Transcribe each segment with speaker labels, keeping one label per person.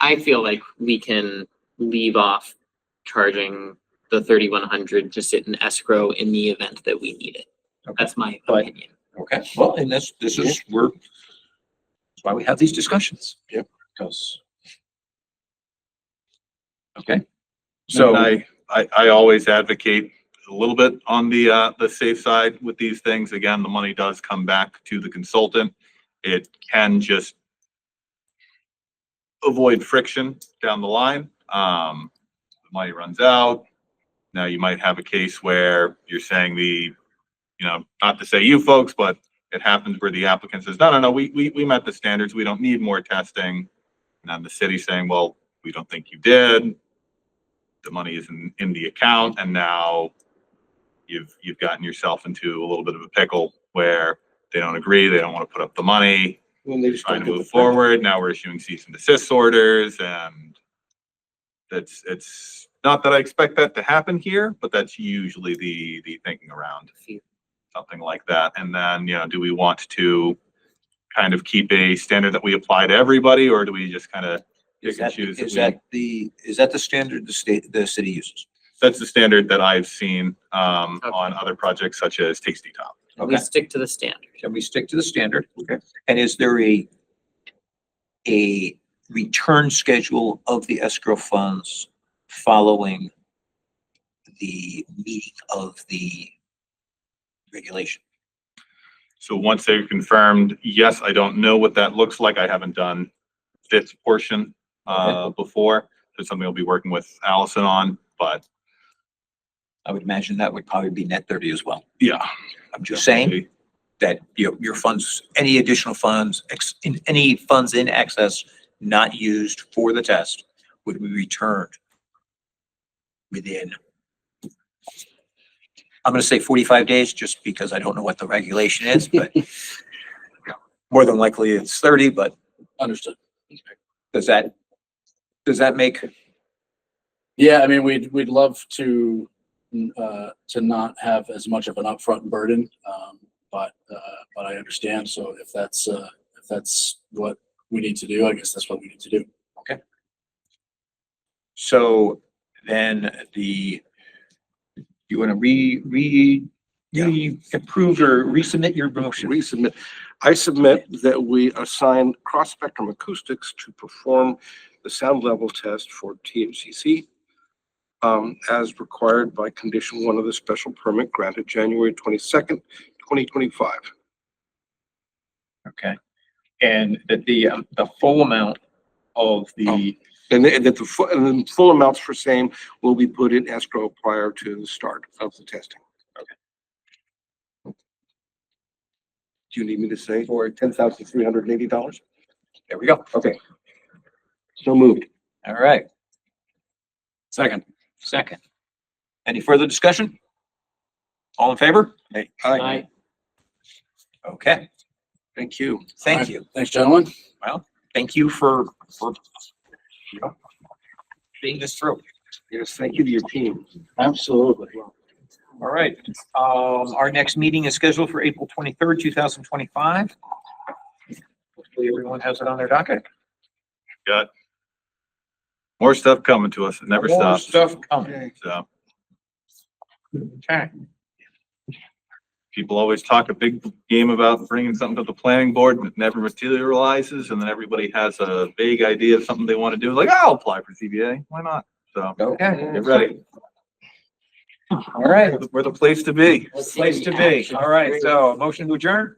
Speaker 1: I feel like we can leave off charging the thirty-one hundred to sit in escrow in the event that we need it.
Speaker 2: Okay.
Speaker 1: That's my
Speaker 2: But-
Speaker 1: opinion.
Speaker 2: Okay, well, and that's, this is, we're, that's why we have these discussions. Yep. Because. Okay. So,
Speaker 3: So I, I, I always advocate a little bit on the, uh, the safe side with these things. Again, the money does come back to the consultant. It can just avoid friction down the line. Um, the money runs out. Now you might have a case where you're saying the, you know, not to say you folks, but it happens where the applicant says, no, no, no, we, we, we met the standards. We don't need more testing. And then the city saying, well, we don't think you did the money is in, in the account and now you've, you've gotten yourself into a little bit of a pickle where they don't agree, they don't want to put up the money,
Speaker 2: when they just
Speaker 3: trying
Speaker 2: don't
Speaker 3: to
Speaker 2: do the
Speaker 3: move forward, now we're issuing cease and desist orders and that's, it's, not that I expect that to happen here, but that's usually the, the thinking around something like that. And then, you know, do we want to kind of keep a standard that we apply to everybody or do we just kind of
Speaker 2: Is
Speaker 3: pick
Speaker 2: that,
Speaker 3: and choose?
Speaker 2: is
Speaker 3: we-
Speaker 2: that the, is that the standard the state, the city uses?
Speaker 3: that's the standard that I've seen um,
Speaker 1: Okay.
Speaker 3: on other projects such as Tasty Top.
Speaker 1: We
Speaker 2: Okay,
Speaker 1: stick to the standard.
Speaker 2: can we stick to the standard? Okay. And is there a, a return schedule of the escrow funds following the meeting of the regulation?
Speaker 3: So once they're confirmed, yes, I don't know what that looks like. I haven't done this portion uh, before. There's something I'll be working with Allison on, but
Speaker 2: I would imagine that would probably be net thirty as well.
Speaker 3: yeah.
Speaker 2: I'm just saying
Speaker 3: definitely.
Speaker 2: that your, your funds, any additional funds, ex, in, any funds in excess not used for the test would be returned within, I'm gonna say forty-five days, just because I don't know what the regulation is, but more than likely it's thirty, but. Understood. Does that, does that make,
Speaker 4: Yeah, I mean, we'd, we'd love to, uh, to not have as much of an upfront burden. Um, but, uh, but I understand. So if that's, uh, if that's what we need to do, I guess that's what we need to do.
Speaker 2: so then the, you wanna re, re, re approve or resubmit your motion?
Speaker 5: resubmit. I submit that we assign Cross Spectrum Acoustics to perform the sound level test for THCC um, as required by condition one of the special permit granted January twenty-second, twenty twenty-five.
Speaker 2: Okay, and that the, um, the full amount of the,
Speaker 5: Um, And that, and that the, fu- and then full amounts for same will be put in escrow prior to the start of the testing. Okay. Do you need me to say for ten thousand three hundred and eighty dollars?
Speaker 2: there we go, okay,
Speaker 5: So moved.
Speaker 2: all right. Second. Second. Any further discussion? All in favor?
Speaker 1: I,
Speaker 2: Okay,
Speaker 5: Thank you.
Speaker 2: thank you,
Speaker 4: Thanks, gentlemen.
Speaker 2: thank you for, for you know, being this through.
Speaker 5: Yes, thank you to your team.
Speaker 4: Absolutely.
Speaker 2: All right, um, our next meeting is scheduled for April twenty-third, two thousand twenty-five. Hopefully everyone has it on their docket.
Speaker 3: More stuff coming to us. It never
Speaker 2: More
Speaker 3: stops.
Speaker 2: Stuff coming,
Speaker 3: So
Speaker 2: okay.
Speaker 3: people always talk a big game about bringing something to the planning board and it never materializes. And then everybody has a vague idea of something they want to do, like, I'll apply for CBA. Why not? So
Speaker 2: Okay,
Speaker 3: get ready.
Speaker 2: all right.
Speaker 3: We're the place to be.
Speaker 2: Place to be. All right, so motion to adjourn.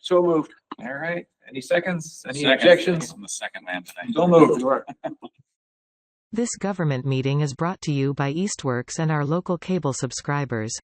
Speaker 5: So moved.
Speaker 2: All right, any seconds, any objections?
Speaker 6: I'm the second man today.
Speaker 2: Don't move.
Speaker 7: This government meeting is brought to you by Eastworks and our local cable subscribers.